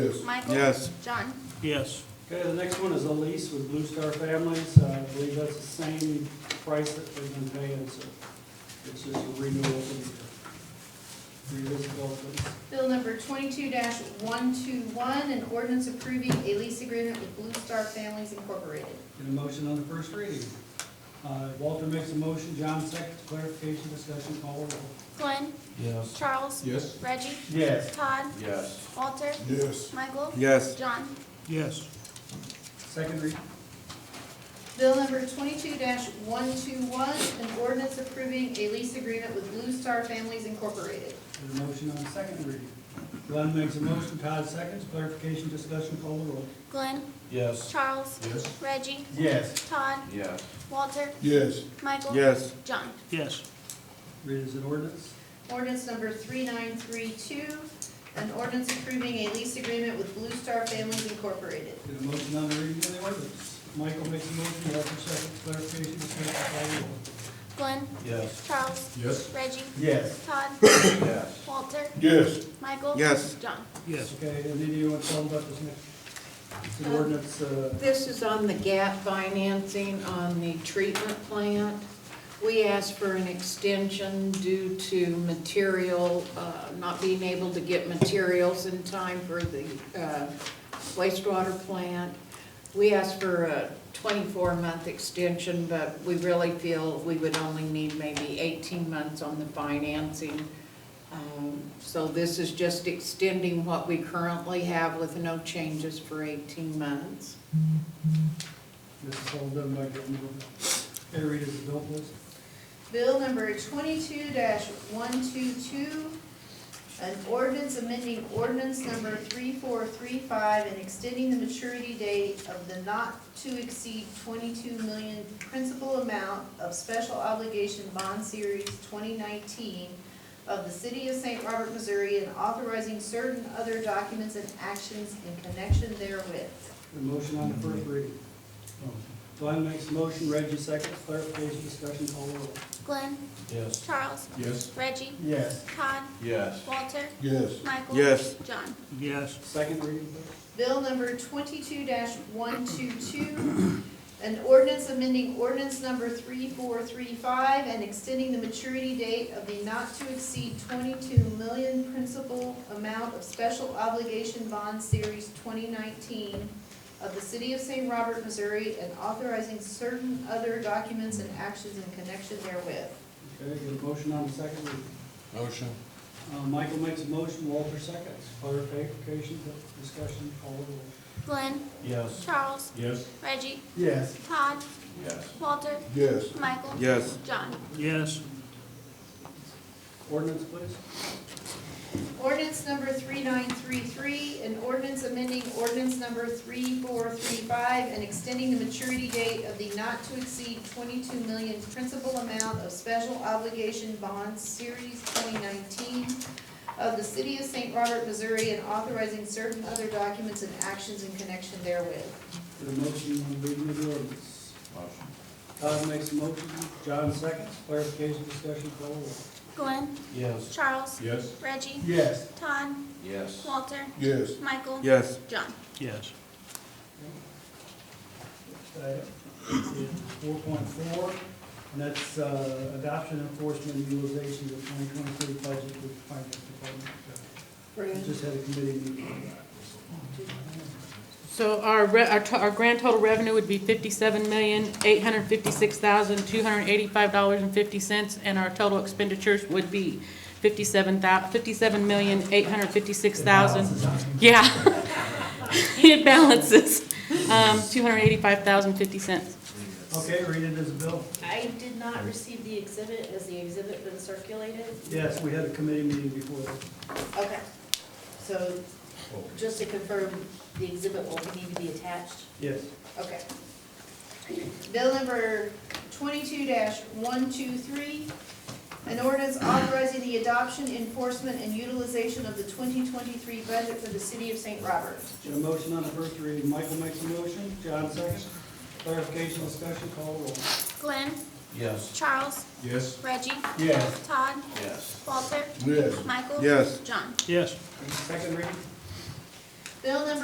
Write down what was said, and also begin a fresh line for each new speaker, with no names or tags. Michael?
Yes.
John?
Yes.
Okay, the next one is a lease with Blue Star Families. Uh, I believe that's the same price that they've been paying, so it's just a renewal of the municipality.
Bill number twenty-two one-two-one, an ordinance approving a lease agreement with Blue Star Families Incorporated.
Get a motion on the first reading. Uh, Walter makes a motion, John seconds, clarification, discussion, call roll.
Glenn?
Yes.
Charles?
Yes.
Reggie?
Yes.
Todd?
Yes.
Walter?
Yes.
Michael?
Yes.
John?
Yes.
Second reading.
Bill number twenty-two one-two-one, an ordinance approving a lease agreement with Blue Star Families Incorporated.
Get a motion on the second reading. Glenn makes a motion, Todd seconds, clarification, discussion, call roll.
Glenn?
Yes.
Charles?
Yes.
Reggie?
Yes.
Todd?
Yes.
Walter?
Yes.
Michael?
Yes.
John?
Yes.
Read as an ordinance.
Ordinance number three-nine-three-two, an ordinance approving a lease agreement with Blue Star Families Incorporated.
Get a motion on the reading of the ordinance. Michael makes a motion, Walter seconds, clarification, discussion, call roll.
Glenn?
Yes.
Charles?
Yes.
Reggie?
Yes.
Todd?
Yes.
Walter?
Yes.
Michael?
Yes.
John?
Yes.
Okay, and then you want to tell them about this next, it's an
Uh,
ordinance, uh,
This is on the gap financing on the treatment plant. We asked for an extension due to material, uh, not being able to get materials in time for the uh, wastewater plant. We asked for a 24-month extension, but we really feel we would only need maybe 18 months on the financing. Um, So this is just extending what we currently have with no changes for 18 months.
this is all done by government. Okay, read as adult list.
Bill number twenty-two one-two-two, an ordinance amending ordinance number three-four-three-five and extending the maturity date of the not-to-exceed twenty-two million principal amount of special obligation bond series twenty nineteen of the city of Saint Robert, Missouri, and authorizing certain other documents and actions in connection therewith.
The motion on the first reading. Glenn makes a motion, Reggie seconds, clarification, discussion, call roll.
Glenn?
Yes.
Charles?
Yes.
Reggie?
Yes.
Todd?
Yes.
Walter?
Yes.
Michael?
Yes.
John?
Yes.
Second reading, please.
Bill number twenty-two one-two-two, an ordinance amending ordinance number three-four-three-five and extending the maturity date of the not-to-exceed twenty-two million principal amount of special obligation bond series twenty nineteen of the city of St. Robert, Missouri, and authorizing certain other documents and actions in connection therewith.
Okay, get a motion on the second reading.
Motion.
Uh, Michael makes a motion, Walter seconds, clarification, discussion, call roll.
Glenn?
Yes.
Charles?
Yes.
Reggie?
Yes.
Todd?
Yes.
Walter?
Yes.
Michael?
Yes.
John?
Yes.
Ordinance, please.
Ordinance number three-nine-three-three, an ordinance amending ordinance number three-four-three-five and extending the maturity date of the not-to-exceed twenty-two million principal amount of special obligation bonds, series twenty-nineteen of the city of Saint Robert, Missouri, and authorizing certain other documents and actions in connection therewith.
Get a motion on the reading of the ordinance.
Motion.
Todd makes a motion, John seconds, clarification, discussion, call roll.
Glenn?
Yes.
Charles?
Yes.
Reggie?
Yes.
Todd?
Yes.
Walter?
Yes.
Michael?
Yes.
John?
Yes.
Four point four, and that's uh, adoption enforcement and utilization of twenty twenty-three budget with finance department. We Just had a committee meeting. on
So our, re- our, to- our grand total revenue would be fifty-seven million, eight hundred fifty-six thousand, two hundred eighty-five dollars and fifty cents, and our total expenditures would be fifty-seven thou, fifty-seven million, eight hundred fifty-six thousand. Yeah. It balances, um, two hundred eighty-five thousand, fifty cents.
that. Okay, read it as a bill.
I did not receive the exhibit. Has the exhibit been circulated?
Yes, we had a committee meeting before. that.
Okay, so just to confirm, the exhibit will need to be attached?
Yes.
Okay. Bill number twenty-two one-two-three, an ordinance authorizing the adoption, enforcement, and utilization of the twenty twenty-three budget for the city of Saint Robert.
Got a motion on the first reading. Michael makes a motion, John seconds. Clarification, discussion, call roll.
Glenn?
Yes.
Charles?
Yes.
Reggie?
Yes.
Todd?
Yes.
Walter?
Yes.
Michael?
Yes.
John?
Yes.
Second reading?
Bill number